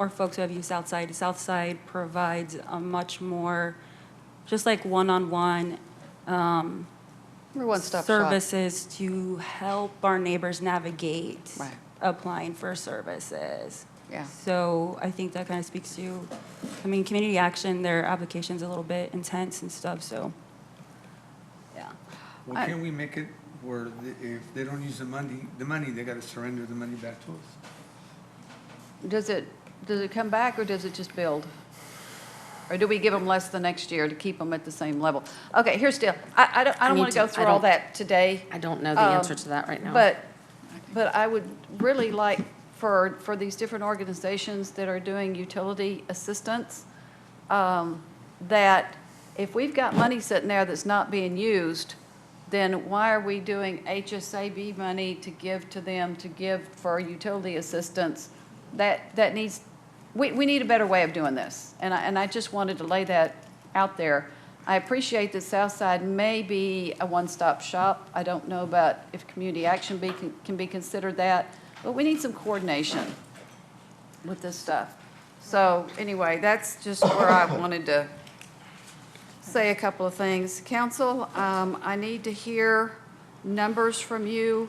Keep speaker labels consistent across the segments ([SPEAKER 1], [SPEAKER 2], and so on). [SPEAKER 1] or folks who have used Southside. Southside provides a much more, just like one-on-one
[SPEAKER 2] We're one-stop shop.
[SPEAKER 1] services to help our neighbors navigate
[SPEAKER 2] Right.
[SPEAKER 1] applying for services.
[SPEAKER 2] Yeah.
[SPEAKER 1] So I think that kind of speaks to, I mean, community action, their application's a little bit intense and stuff, so, yeah.
[SPEAKER 3] Well,
[SPEAKER 2] I-
[SPEAKER 3] can we make it where the- if they don't use the money, the money, they gotta surrender the money back to us?
[SPEAKER 2] Does it, does it come back or does it just build? Or do we give them less the next year to keep them at the same level? Okay, here's still, I, I don't, I don't
[SPEAKER 4] need
[SPEAKER 2] want to
[SPEAKER 4] to-
[SPEAKER 2] go
[SPEAKER 4] I
[SPEAKER 2] through all
[SPEAKER 4] don't-
[SPEAKER 2] that today.
[SPEAKER 4] I don't know the
[SPEAKER 2] Um,
[SPEAKER 4] answer to that right now.
[SPEAKER 2] But, but I would really like for, for these different organizations that are doing utility assistance, um, that if we've got money sitting there that's not being used, then why are we doing HSAB money to give to them, to give for utility assistance? That, that needs, we, we need a better way of doing this. And I, and I just wanted to lay that out there. I appreciate that Southside may be a one-stop shop. I don't know about if community action be, can be considered that, but we need some coordination with this stuff. So anyway, that's just where I wanted to say a couple of things. Council, um, I need to hear numbers from you.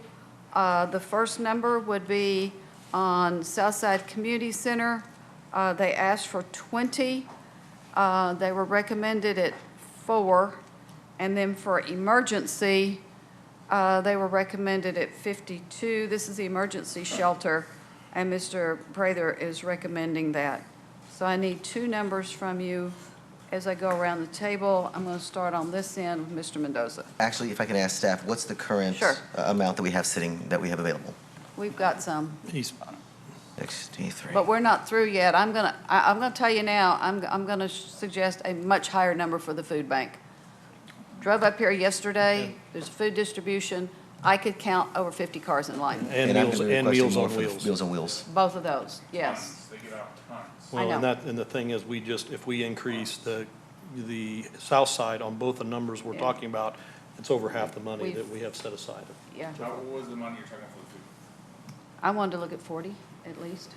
[SPEAKER 2] Uh, The first number would be on Southside Community Center. Uh, They asked for 20. Uh, They were recommended at four. And then for emergency, uh, They were recommended at 52. This is the emergency shelter, and Mr. Prather is recommending that. So I need two numbers from you as I go around the table. I'm going to start on this end with Mr. Mendoza.
[SPEAKER 5] Actually, if I could ask staff, what's the current
[SPEAKER 2] Sure.
[SPEAKER 5] uh, amount that we have sitting, that we have available?
[SPEAKER 2] We've got some,
[SPEAKER 6] He's,
[SPEAKER 5] 63.
[SPEAKER 2] but we're not through yet. I'm going to, I'm going to tell you now, I'm, I'm going to suggest a much higher number for the food bank. Drove up here yesterday, there's food distribution. I could count over 50 cars in line,
[SPEAKER 6] and
[SPEAKER 5] I'm
[SPEAKER 6] Meals,
[SPEAKER 5] gonna be
[SPEAKER 6] and
[SPEAKER 5] requesting
[SPEAKER 6] Meals
[SPEAKER 5] more
[SPEAKER 6] on
[SPEAKER 5] for the
[SPEAKER 6] Wheels.
[SPEAKER 5] Meals on Wheels.
[SPEAKER 2] both of those, yes.
[SPEAKER 7] They get out tons.
[SPEAKER 6] Well, and
[SPEAKER 2] know.
[SPEAKER 6] that, and the thing is, we just, if we increase the, the south side on both the numbers we're
[SPEAKER 2] Yeah.
[SPEAKER 6] talking about, it's over half the money
[SPEAKER 2] We've-
[SPEAKER 6] that we have set aside.
[SPEAKER 2] Yeah,
[SPEAKER 7] How, what was the money you're talking for the food?
[SPEAKER 2] I wanted to look at 40 at least.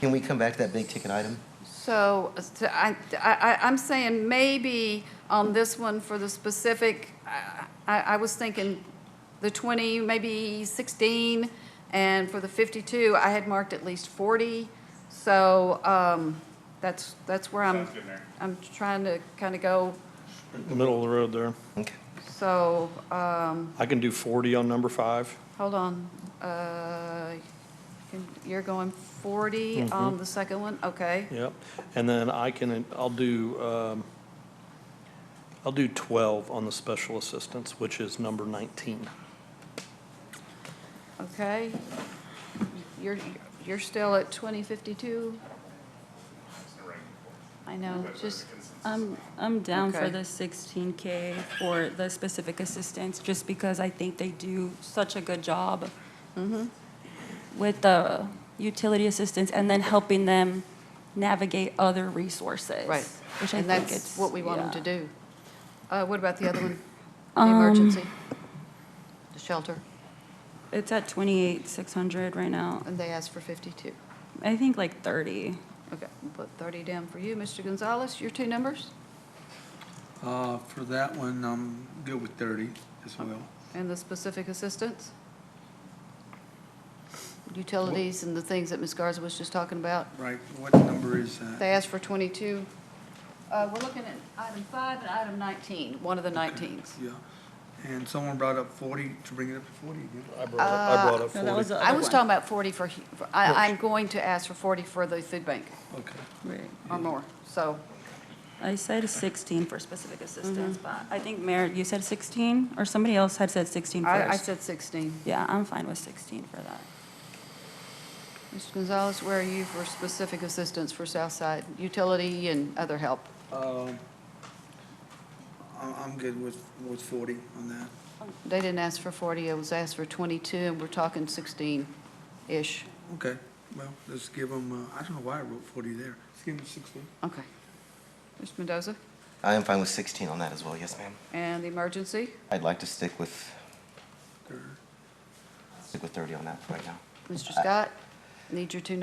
[SPEAKER 5] Can we come back to that big ticket item?
[SPEAKER 2] So uh, so I, I, I'm saying maybe on this one for the specific, I, I I was thinking the 20, maybe 16, and for the 52, I had marked at least 40. So um, that's, that's where I'm,
[SPEAKER 7] Sounds good, Mayor.
[SPEAKER 2] I'm trying to kind of go,
[SPEAKER 6] Middle of the road there.
[SPEAKER 5] Okay.
[SPEAKER 2] so, um,
[SPEAKER 6] I can do forty on number five.
[SPEAKER 2] hold on. Uh, You're going 40 on the second one? Okay.
[SPEAKER 6] Yep, and then I can, I'll do, um, I'll do twelve on the special assistance, which is number nineteen.
[SPEAKER 2] Okay. You're, you're still at 2052?
[SPEAKER 7] It's in a range of four.
[SPEAKER 2] I know, just,
[SPEAKER 1] I'm, I'm down for
[SPEAKER 2] Okay.
[SPEAKER 1] the sixteen K for the specific assistance, just because I think they do such a good job
[SPEAKER 2] Mm-hmm.
[SPEAKER 1] with the utility assistance and then helping them navigate other resources.
[SPEAKER 2] right.
[SPEAKER 1] Which I
[SPEAKER 2] And
[SPEAKER 1] think
[SPEAKER 2] that's
[SPEAKER 1] it's.
[SPEAKER 2] what we want them
[SPEAKER 1] yeah. Um,
[SPEAKER 2] to do. Uh, what about the other one? The emergency? The shelter?
[SPEAKER 1] It's at twenty-eight, six hundred right now.
[SPEAKER 2] And they asked for 52.
[SPEAKER 1] I think like thirty.
[SPEAKER 2] Okay, we'll put 30 down for you. Mr. Gonzalez, your two numbers?
[SPEAKER 3] Uh, for that one, I'm good with thirty as well.
[SPEAKER 2] And the specific assistance? Utilities and the things that Ms. Garza was just talking about?
[SPEAKER 3] Right, what number is
[SPEAKER 2] They
[SPEAKER 3] that?
[SPEAKER 2] asked for 22. Uh, we're looking at item five and item 19, one of the 19s.
[SPEAKER 3] Yeah, and someone brought up forty, to bring it up to forty again.
[SPEAKER 6] I brought up, I brought up
[SPEAKER 1] No, that was
[SPEAKER 6] forty.
[SPEAKER 1] the
[SPEAKER 2] I
[SPEAKER 1] other
[SPEAKER 2] was
[SPEAKER 1] one.
[SPEAKER 2] talking about 40 for, hu- for- I, I'm going to ask for 40 for the food bank
[SPEAKER 3] Okay.
[SPEAKER 1] Right.
[SPEAKER 2] or more, so,
[SPEAKER 1] I said sixteen for specific assistance,
[SPEAKER 2] Mm-hmm.
[SPEAKER 1] but I think Mayor, you said sixteen, or somebody else had said sixteen
[SPEAKER 2] I, I
[SPEAKER 1] first.
[SPEAKER 2] said 16.
[SPEAKER 1] Yeah, I'm fine with sixteen for that.
[SPEAKER 2] Mr. Gonzalez, where are you for specific assistance for Southside, utility and other help?
[SPEAKER 3] Um, I'm, I'm good with, with forty on that.
[SPEAKER 2] They didn't ask for 40, it was asked for 22, and we're talking 16-ish,
[SPEAKER 3] Okay, well, let's give them, uh, I don't know why I wrote forty there. Let's give them sixty.
[SPEAKER 2] okay. Mr. Mendoza,
[SPEAKER 5] I am fine with 16 on that as well, yes, ma'am.
[SPEAKER 2] and the emergency,
[SPEAKER 5] I'd like to stick with,
[SPEAKER 3] Third.
[SPEAKER 5] stick with 30 on that for right now.
[SPEAKER 2] Mr. Scott, need your two